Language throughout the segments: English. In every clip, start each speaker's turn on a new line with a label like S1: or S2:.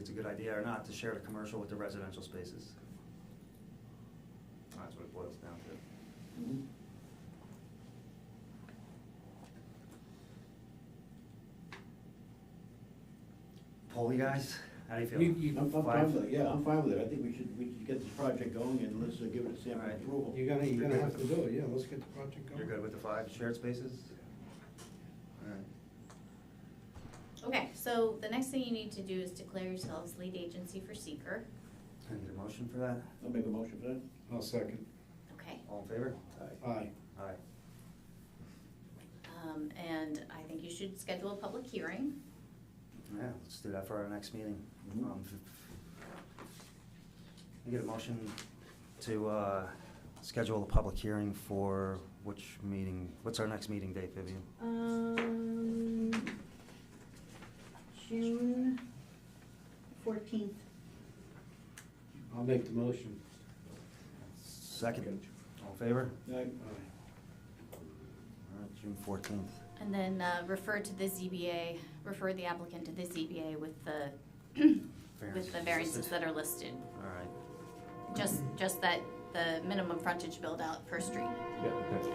S1: it's a good idea or not to share the commercial with the residential spaces. That's what it boils down to. Poll you guys, how do you feel?
S2: You- you-
S3: I'm I'm
S1: Five?
S3: fine with it, yeah, I'm fine with it, I think we should, we should get this project going and let's uh, give it a sample
S1: Alright.
S3: approval.
S2: You're gonna, you're gonna have to do it, yeah, let's get the project going.
S1: You're good with the five shared spaces? Alright.
S4: Okay, so the next thing you need to do is declare yourselves lead agency for seeker.
S1: I need a motion for that,
S3: I'll make a motion for that.
S2: I'll second.
S4: Okay,
S1: all in favor?
S2: Aye.
S1: Aye.
S4: um, and I think you should schedule a public hearing.
S1: Yeah, let's do that for our next meeting.
S3: Mhm.
S1: Um, f- I get a motion to uh, schedule a public hearing for which meeting, what's our next meeting date, Vivian?
S5: Um, June fourteenth.
S2: I'll make the motion.
S1: Second, all in favor?
S3: Aye.
S2: Aye.
S1: All right, June fourteenth.
S4: And then uh, refer to the ZBA, refer the applicant to the ZBA with the, with the variances that are listed.
S1: All right,
S4: Just, just that, the minimum frontage build out per street.
S6: Yeah, okay.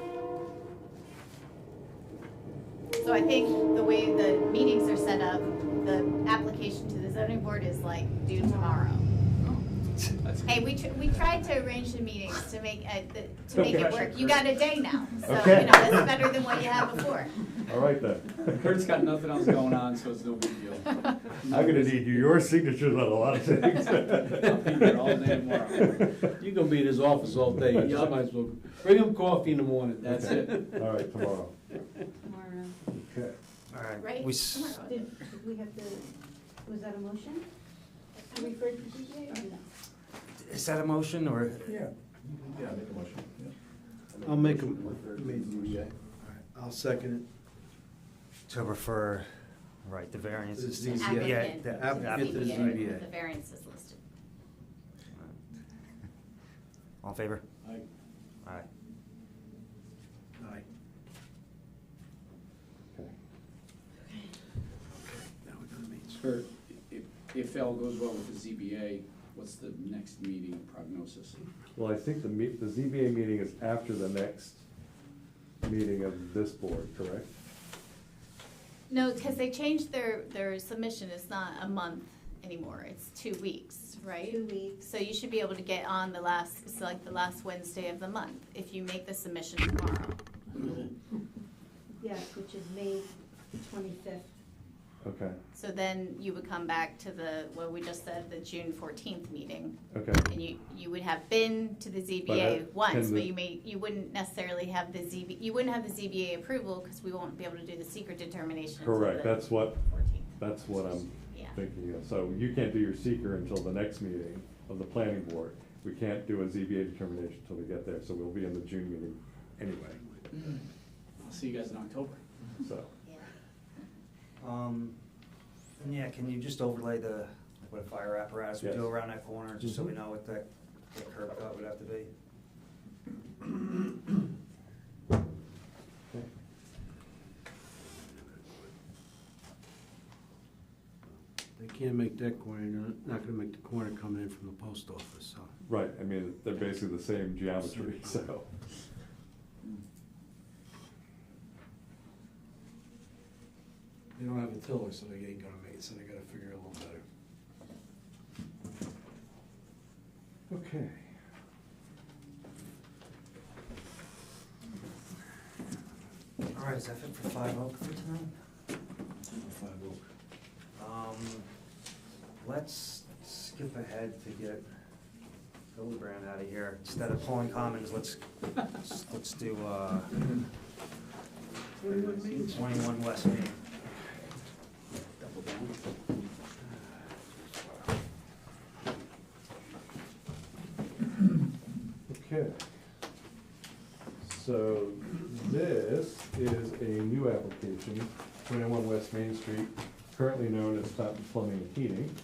S4: So I think the way the meetings are set up, the application to the zoning board is like due tomorrow. Hey, we, tr- we tried to arrange the meetings to make, uh, the- to make it work. You got a day now, so, you know,
S6: Okay.
S4: that's better than what you had before.
S6: All right then.
S7: Kurt's got nothing else going on, so it's no big deal.
S6: I'm gonna need your signatures on a lot of things.
S7: I'll be here all day tomorrow.
S2: You gonna be in his office all day, you just
S7: Yup.
S2: might as well, bring him coffee in the morning.
S7: That's it.
S6: All right, tomorrow.
S5: Tomorrow.
S6: Okay.
S1: all right.
S4: Right,
S1: We s-
S4: tomorrow.
S5: Did, did we have the, was that a motion? To refer to ZBA or no?
S1: Is that a motion or?
S6: Yeah. Yeah, make a motion, yeah.
S2: I'll make a, I'll second
S1: To refer, right, the variances.
S2: The
S1: to-
S2: ZBA.
S1: Yeah,
S4: Applicant
S1: the
S4: to the
S2: applicant
S1: applicant.
S2: to the
S4: ZBA,
S2: ZBA.
S4: The variance is listed.
S1: All in favor?
S3: Aye.
S1: Aye.
S2: it. Aye.
S3: Now we're gonna meet.
S7: Kurt, if, if all goes well with the ZBA, what's the next meeting prognosis?
S6: Well, I think the meet, the ZBA meeting is after the next meeting of this board, correct?
S4: No, because they changed their, their submission, it's not a month anymore, it's two weeks, right?
S5: Two weeks.
S4: So you should be able to get on the last, it's like the last Wednesday of the month, if you make the submission tomorrow.
S5: Yes, which is May twenty-fifth.
S6: Okay,
S4: So then you would come back to the, what we just said, the June fourteenth meeting.
S6: okay.
S4: And you, you would have been to the
S6: But I-
S4: ZBA once,
S6: can
S4: but
S6: the-
S4: you may, you wouldn't necessarily have the ZB, you wouldn't have the ZBA approval, because we won't be able to do the secret determination until
S6: Correct,
S4: the
S6: that's what,
S4: 14th.
S6: that's what I'm
S4: Yeah.
S6: thinking of. So you can't do your seeker until the next meeting of the planning board. We can't do a ZBA determination until we get there, so we'll be in the June meeting anyway,
S7: I'll see you guys in October.
S6: so.
S4: Yeah.
S1: Um, and yeah, can you just overlay the, like what a fire apparatus would do
S6: Yes.
S1: around that corner, just so we
S6: Mhm.
S1: know what that, that curb cut would have to be?
S6: okay.
S2: They can't make that corner, they're not gonna make the corner coming in from the post office, so.
S6: Right, I mean, they're basically the same geometry, so.
S2: They don't have a tiller, so they ain't gonna make it, so they gotta figure it a little better.
S6: Okay.
S1: All right, is that it for Five Oak for tonight? Um, let's skip ahead to get Hildebrand out of here. Instead of pulling commons, let's, let's do, uh, twenty-one West Main.
S7: Double down.
S6: Okay. So this is a new application, twenty-one West Main Street, currently known as Fountain Plumbing and Heating.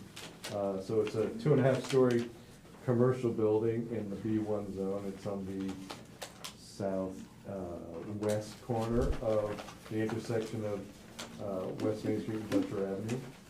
S6: Uh, so it's a two and a half story commercial building in the B one zone. It's on the south, uh, west corner of the intersection of, uh, West Main Street and Dutcher Avenue.